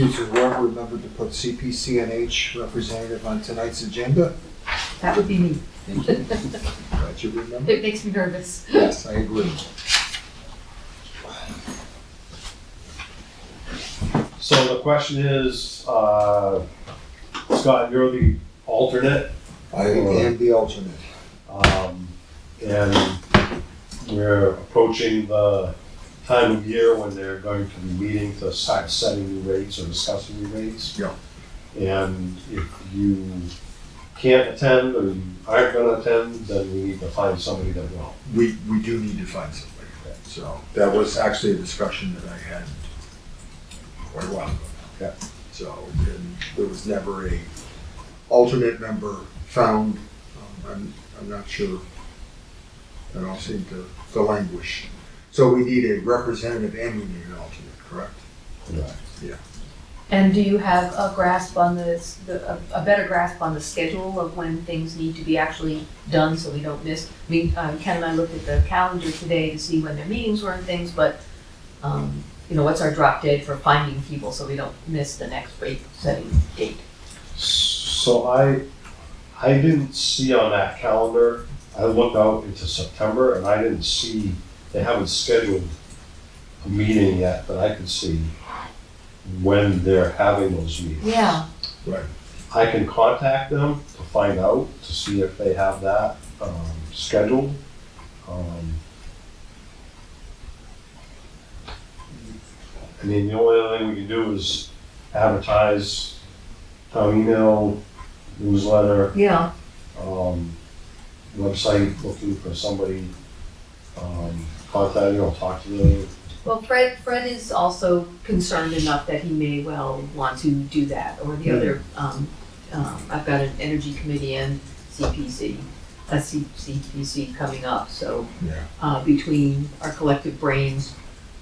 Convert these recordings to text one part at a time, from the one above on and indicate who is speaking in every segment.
Speaker 1: Mr. Webb remembered to put CPCNH representative on tonight's agenda.
Speaker 2: That would be me.
Speaker 1: Glad you remembered.
Speaker 2: It makes me nervous.
Speaker 1: Yes, I agree.
Speaker 3: So the question is, uh, Scott, you're the alternate,
Speaker 1: I am the alternate.
Speaker 3: um, and we're approaching the time of year when they're going to be meeting to start setting new rates or discussing new rates.
Speaker 1: Yeah.
Speaker 3: And if you can't attend or you aren't gonna attend, then we need to find somebody that will.
Speaker 1: We, we do need to find somebody. So that was actually a discussion that I had quite a while ago.
Speaker 3: Yeah.
Speaker 1: So, and there was never a alternate member found. Um, I'm, I'm not sure. That all seemed to, to languish. So we need a representative and we need an alternate, correct?
Speaker 2: And do you have a grasp on this, the, a, a better grasp on the schedule of when things need to be actually done so we don't miss? I mean, um, Ken and I looked at the calendar today to see when their meetings were and things, but, um, you know, what's our drop dead for finding people so we don't miss the next rate setting date?
Speaker 3: So I, I didn't see on that calendar, I looked out into September and I didn't see, they haven't scheduled a meeting yet, but I could see when they're having those meetings.
Speaker 2: Yeah,
Speaker 3: I can contact them to find out, to see if they have that, um, scheduled. Um, I mean, the only other thing we can do is advertise, town email, newsletter,
Speaker 2: yeah.
Speaker 3: um, website looking for somebody, um, contact, you know, talk to them.
Speaker 2: Well, Fred, Fred is also concerned enough that he may well want to do that, or the other, um, um, I've got an energy committee and CPC, a C- CPC coming up, so.
Speaker 1: Yeah.
Speaker 2: Uh, between our collective brains,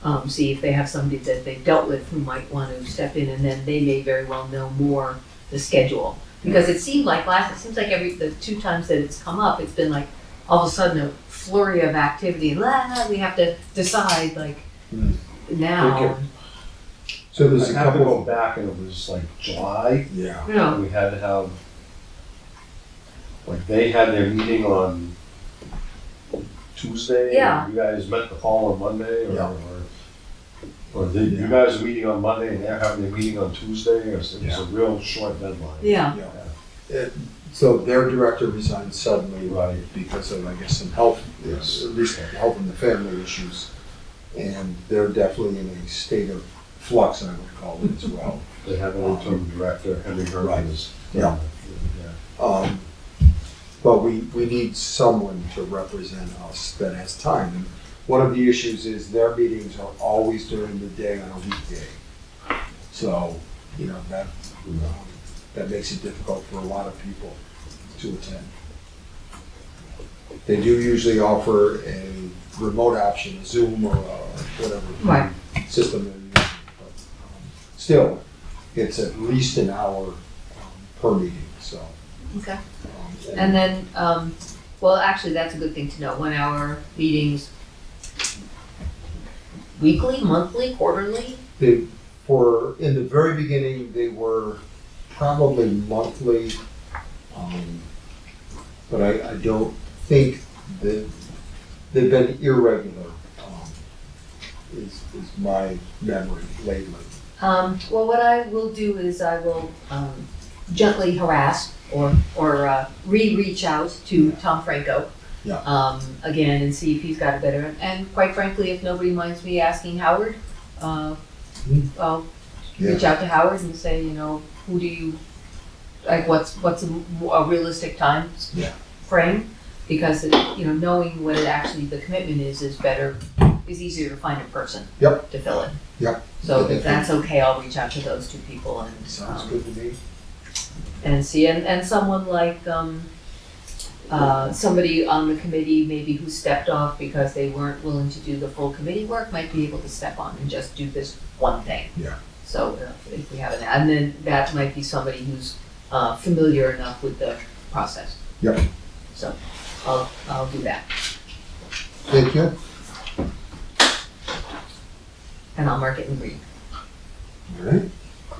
Speaker 2: um, see if they have somebody that they've dealt with who might want to step in, and then they may very well know more the schedule. Because it seemed like last, it seems like every, the two times that it's come up, it's been like, all of a sudden, a flurry of activity, la, we have to decide, like,
Speaker 1: Hmm.
Speaker 2: now.
Speaker 3: Okay.
Speaker 1: So there's a
Speaker 3: I have to go
Speaker 1: couple.
Speaker 3: back and it was like July,
Speaker 1: Yeah.
Speaker 2: No,
Speaker 3: we had to have, like, they had their meeting on Tuesday. and
Speaker 2: Yeah.
Speaker 3: You guys met the following Monday or,
Speaker 1: Yeah.
Speaker 3: or, or they- you guys are meeting on Monday and they're having their meeting on Tuesday, or so it was a real short deadline.
Speaker 2: yeah,
Speaker 1: Yeah. It- So their director resigned suddenly
Speaker 3: Right,
Speaker 1: because of, I guess, some health, at
Speaker 3: Yes.
Speaker 1: least health and the family issues. And they're definitely in a state of flux, I would call it as well.
Speaker 3: they have an interim director, Henry
Speaker 1: Right.
Speaker 3: Herman is. uh,
Speaker 1: Yeah.
Speaker 3: Yeah.
Speaker 1: Um, But we, we need someone to represent us that has time. And One of the issues is their meetings are always during the day on a weekday. So, you know, that, um, that makes it difficult for a lot of people to attend. They do usually offer a remote option, Zoom or uh,
Speaker 2: Right.
Speaker 1: whatever system they're using. but, um, Still, it's at least an hour um, per meeting, so.
Speaker 2: okay.
Speaker 1: um,
Speaker 2: And then, um, well, actually, that's a good thing to know, one hour meetings. Weekly, monthly, quarterly,
Speaker 1: They were, in the very beginning, they were probably monthly. um, But I, I don't think that, they've been irregular, um, is, is my memory lately.
Speaker 2: Um, well, what I will do is I will, um, gently harass or, or, uh, re-reach out to Tom Franco.
Speaker 1: Yeah.
Speaker 2: Um, again, and see if he's got a better, and quite frankly, if nobody minds me asking Howard, uh,
Speaker 1: Hmm.
Speaker 2: I'll reach out to Howard and say, you know, who do you, like, what's, what's a m- a realistic time s-
Speaker 1: Yeah.
Speaker 2: frame? Because, it- you know, knowing what it actually, the commitment is, is better, is easier to find a person.
Speaker 1: Yep.
Speaker 2: To fill it.
Speaker 1: Yep.
Speaker 2: So if that's okay, I'll reach out to those two people and,
Speaker 1: Sounds
Speaker 2: um,
Speaker 1: good to me.
Speaker 2: and see, and, and someone like, um, uh, somebody on the committee maybe who stepped off because they weren't willing to do the full committee work might be able to step on and just do this one thing.
Speaker 1: Yeah.
Speaker 2: So uh, if we have an, and then that might be somebody who's, uh, familiar enough with the process.
Speaker 1: Yep.
Speaker 2: So I'll, I'll do that
Speaker 1: Thank you.
Speaker 2: and I'll mark it in green.
Speaker 1: All right.